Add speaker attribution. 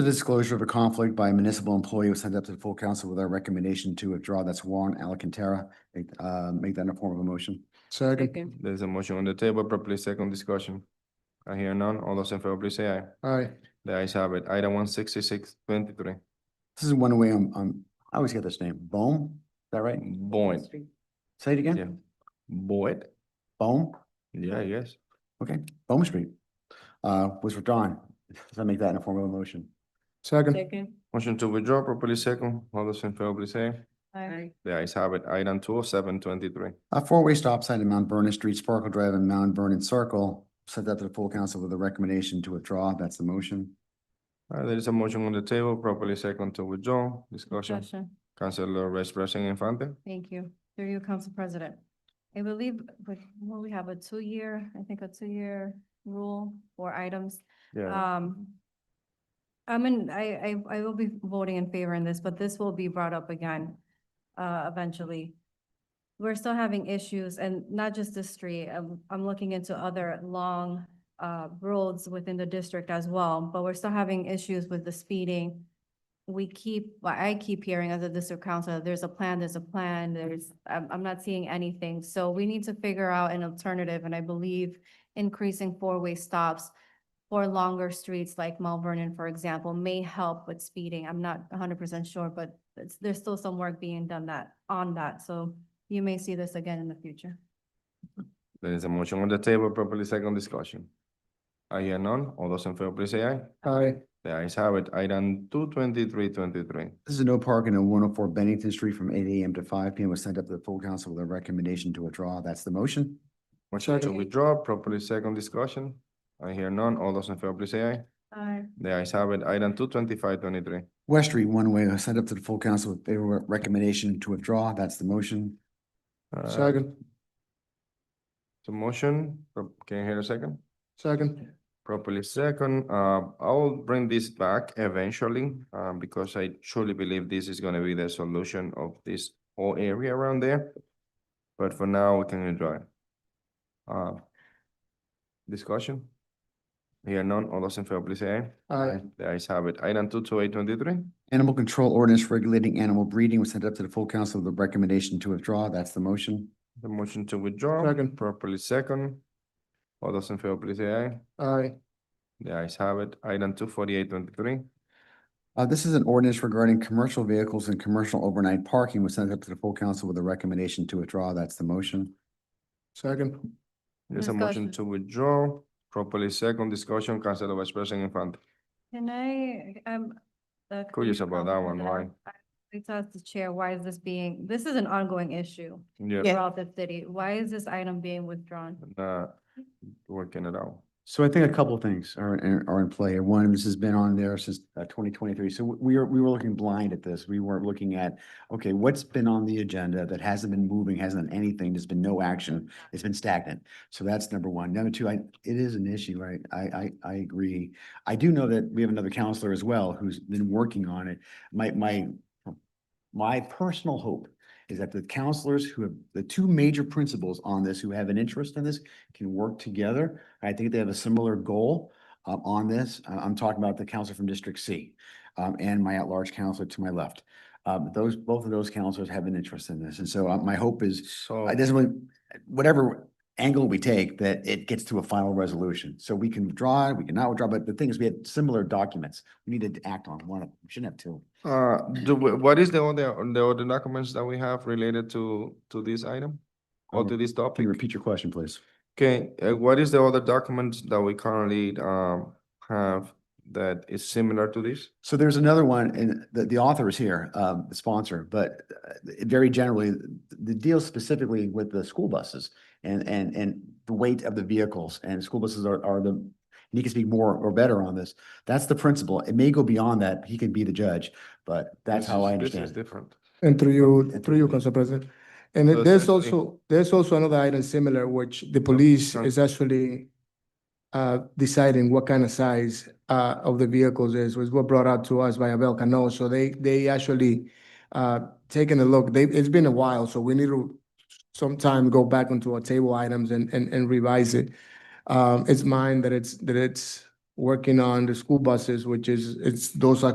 Speaker 1: The disclosure of a conflict by a municipal employee was sent up to the full council with our recommendation to withdraw. That's Warren Alcantara. Make- Uh, make that in a form of a motion.
Speaker 2: Second.
Speaker 3: There's a motion on the table, properly second discussion. I hear none. All those in favor, please say aye.
Speaker 2: Aye.
Speaker 3: The ayes have it. Item one sixty-six twenty-three.
Speaker 1: This is one way I'm, I'm, I always get this name. Bohm, is that right?
Speaker 3: Boyd,
Speaker 1: Say it
Speaker 3: Yeah.
Speaker 1: again.
Speaker 3: Boyd?
Speaker 1: Bohm,
Speaker 3: Yeah, yes.
Speaker 1: okay, Bohm Street, uh, was withdrawn. Does that make that in a form of a motion?
Speaker 2: Second.
Speaker 4: Second.
Speaker 3: Motion to withdraw, properly second. All those in favor, please say aye.
Speaker 4: Aye.
Speaker 3: The ayes have it. Item two oh seven twenty-three.
Speaker 1: A four-way stop sign at Mount Vernon Street, Sparkle Drive and Mount Vernon Circle. Sent that to the full council with a recommendation to withdraw. That's the motion.
Speaker 3: Uh, there is a motion on the table, properly second to withdraw. Discussion.
Speaker 4: Discussion.
Speaker 3: Councilor Vice President Infante.
Speaker 4: Thank you. Through you, Council President. I believe, but, well, we have a two-year, I think a two-year rule for items.
Speaker 3: Yeah.
Speaker 4: Um, I mean, I, I, I will be voting in favor in this, but this will be brought up again, uh, eventually. We're still having issues and not just this street. I'm, I'm looking into other long, uh, roads within the district as well, but we're still having issues with the speeding. We keep, well, I keep hearing as a district council, there's a plan, there's a plan, there's, I'm, I'm not seeing anything. So we need to figure out an alternative, and I believe increasing four-way stops for longer streets like Mount Vernon, for example, may help with speeding. I'm not hundred percent sure, but it's, there's still some work being done that, on that, so you may see this again in the future.
Speaker 3: There is a motion on the table, properly second discussion. I hear none. All those in favor, please say aye.
Speaker 2: Aye.
Speaker 3: The ayes have it. Item two twenty-three twenty-three.
Speaker 1: This is a no parking on one oh four Bennington Street from eight AM to five PM was sent up to the full council with a recommendation to withdraw. That's the motion.
Speaker 3: Motion to
Speaker 4: Second.
Speaker 3: withdraw, properly second discussion. I hear none. All those in favor, please say aye.
Speaker 4: Aye.
Speaker 3: The ayes have it. Item two twenty-five twenty-three.
Speaker 1: West Street one way was sent up to the full council with favorable recommendation to withdraw. That's the motion.
Speaker 3: Uh,
Speaker 2: Second.
Speaker 3: So motion, Pro- can you hear a second?
Speaker 2: Second.
Speaker 3: Properly second, uh, I'll bring this back eventually, um, because I truly believe this is gonna be the solution of this whole area around there. But for now, we can withdraw it. Uh, discussion? Here none, all those in favor, please say aye.
Speaker 2: Aye.
Speaker 3: The ayes have it. Item two two eight twenty-three.
Speaker 1: Animal control ordinance regulating animal breeding was sent up to the full council with a recommendation to withdraw. That's the motion.
Speaker 3: The motion to withdraw.
Speaker 2: Second.
Speaker 3: Properly second. All those in favor, please say aye.
Speaker 2: Aye.
Speaker 3: The ayes have it. Item two forty-eight twenty-three.
Speaker 1: Uh, this is an ordinance regarding commercial vehicles and commercial overnight parking was sent up to the full council with a recommendation to withdraw. That's the motion.
Speaker 2: Second.
Speaker 3: There's a motion
Speaker 4: Discussion.
Speaker 3: to withdraw. Properly second discussion, Councilor Vice President Infante.
Speaker 4: Can I, um. uh,
Speaker 3: Curious
Speaker 4: Commissioner
Speaker 3: about that one,
Speaker 4: Alvarez, I-
Speaker 3: why?
Speaker 4: I- I'd like to ask the chair, why is this being, this is an ongoing issue
Speaker 3: Yeah.
Speaker 4: throughout the city. Why is this item being withdrawn?
Speaker 3: Uh, working it out.
Speaker 1: So I think a couple of things are, in- are in play. One, this has been on there since uh, twenty twenty-three. So we- we are, we were looking blind at this. We weren't looking at, okay, what's been on the agenda that hasn't been moving, hasn't done anything, there's been no action, it's been stagnant. So that's number one. Number two, I, it is an issue, right? I, I, I agree. I do know that we have another counselor as well who's been working on it. My, my, my personal hope is that the counselors who have, the two major principals on this, who have an interest in this, can work together. I think they have a similar goal uh, on this. Uh, I'm talking about the counselor from District C um, and my at-large counselor to my left. Um, Those, both of those counselors have an interest in this. And so uh, my hope Uh, is,
Speaker 3: So,
Speaker 1: it doesn't really, whatever angle we take, that it gets to a final resolution. So we can withdraw, we cannot withdraw, but the thing is, we had similar documents. We needed to act on one, of we shouldn't have two.
Speaker 3: uh, do, we- what is the other, the other documents that we have related to, to this item? Or
Speaker 1: Um,
Speaker 3: to this
Speaker 1: Can
Speaker 3: topic?
Speaker 1: you repeat your question, please?
Speaker 3: Okay, uh, what is the other documents that we currently, um, have that is similar to this?
Speaker 1: So there's another one, and the, the author is here, um, the sponsor, but uh, very generally, th- the deal specifically with the school buses and, and, and the weight of the vehicles and school buses are, are the, and he can speak more or better on this. That's the principle. It may go beyond that. He can be the judge, but that's
Speaker 3: This
Speaker 1: how
Speaker 3: is-
Speaker 1: I
Speaker 3: This is
Speaker 1: understand it.
Speaker 3: different.
Speaker 2: And through you, through you, Council President. And
Speaker 3: So
Speaker 2: there's
Speaker 3: essentially-
Speaker 2: also, there's also another item similar, which the police
Speaker 3: sure.
Speaker 2: is actually uh, deciding what kind of size uh, of the vehicles is, was what brought out to us by Abel Cano. So they, they actually uh, taking a look. They, it's been a while, so we need to sometime go back onto our table items and, and, and revise it. Um, It's mine that it's, that it's working on the school buses, which is, it's, those are